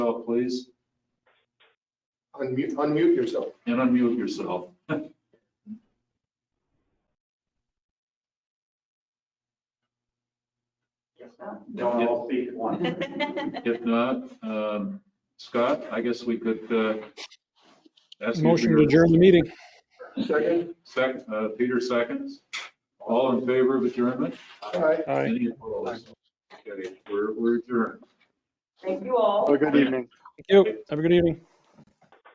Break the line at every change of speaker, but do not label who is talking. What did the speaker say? yourself, please,
Unmute, unmute yourself.
and unmute yourself.
Don't all speak at once.
If not, um, Scott, I guess we could uh, ask you for
Motion to
your
adjourn the meeting.
Second,
sec- uh, Peter seconds. All in favor of adjournment?
all right.
Aye.
Any opposed? Okay, we're we're adjourned.
Thank you all.
Have a good evening.
Thank you. Have a good evening.